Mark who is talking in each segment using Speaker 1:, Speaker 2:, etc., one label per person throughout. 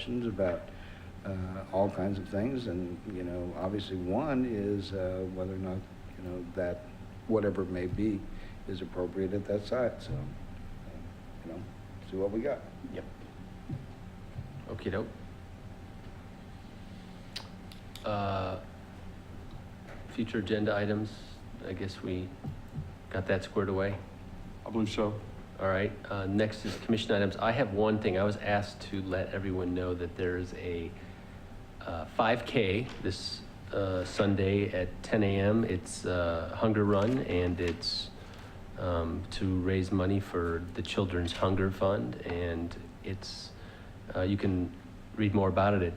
Speaker 1: questions about uh, all kinds of things, and, you know, obviously, one is uh, whether or not, you know, that, whatever it may be, is appropriate at that site, so, uh, you know, see what we got.
Speaker 2: Yep. Okey doke. Uh, Future agenda items, I guess we got that squared away.
Speaker 3: I believe so.
Speaker 2: All right, uh, next is commission items. I have one thing. I was asked to let everyone know that there is a uh, 5K this uh, Sunday at 10 a.m. It's uh, Hunger Run, and it's um, to raise money for the Children's Hunger Fund. And it's, uh, you can read more about it at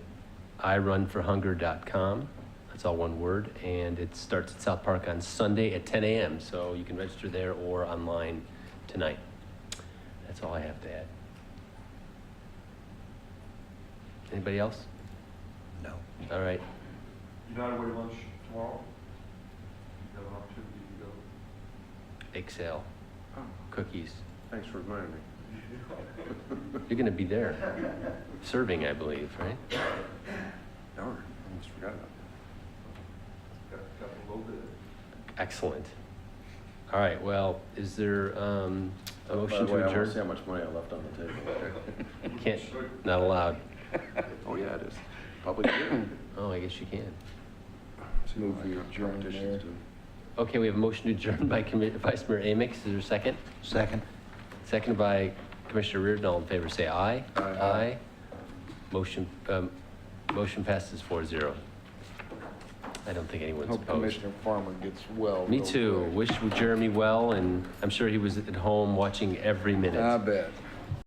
Speaker 2: irunforhunger.com. That's all one word. And it starts at South Park on Sunday at 10 a.m., so you can register there or online tonight. That's all I have to add. Anybody else?
Speaker 1: No.
Speaker 2: All right.
Speaker 3: You're not away to lunch tomorrow? You have an opportunity to go.
Speaker 2: Excel. Cookies.
Speaker 3: Thanks for reminding me.
Speaker 2: You're going to be there. Serving, I believe, right?
Speaker 3: Darn, I almost forgot about that. Got, got a little bit.
Speaker 2: Excellent. All right, well, is there um, a motion to
Speaker 4: I want to see how
Speaker 2: adjourn?
Speaker 4: much money I left on the table.
Speaker 2: Can't, not allowed.
Speaker 4: Oh, yeah, it is. Public hearing.
Speaker 2: Oh, I guess you can.
Speaker 4: See
Speaker 1: Move
Speaker 4: what
Speaker 1: we
Speaker 4: my
Speaker 1: adjourn
Speaker 4: competition's
Speaker 1: there.
Speaker 4: doing.
Speaker 2: Okay, we have a motion to adjourn by Commi- Vice Mayor Amix. Is there a second?
Speaker 1: Second.
Speaker 2: Seconded by Commissioner Reardon. All in favor, say aye.
Speaker 1: Aye.
Speaker 2: Motion, um, motion passes 4-0. I don't think anyone's
Speaker 5: Hope
Speaker 2: opposed.
Speaker 5: Commissioner Farmer gets well.
Speaker 2: Me
Speaker 5: real
Speaker 2: too.
Speaker 5: quick.
Speaker 2: Wish Jeremy well, and I'm sure he was at home watching every
Speaker 1: I
Speaker 2: minute.
Speaker 1: bet.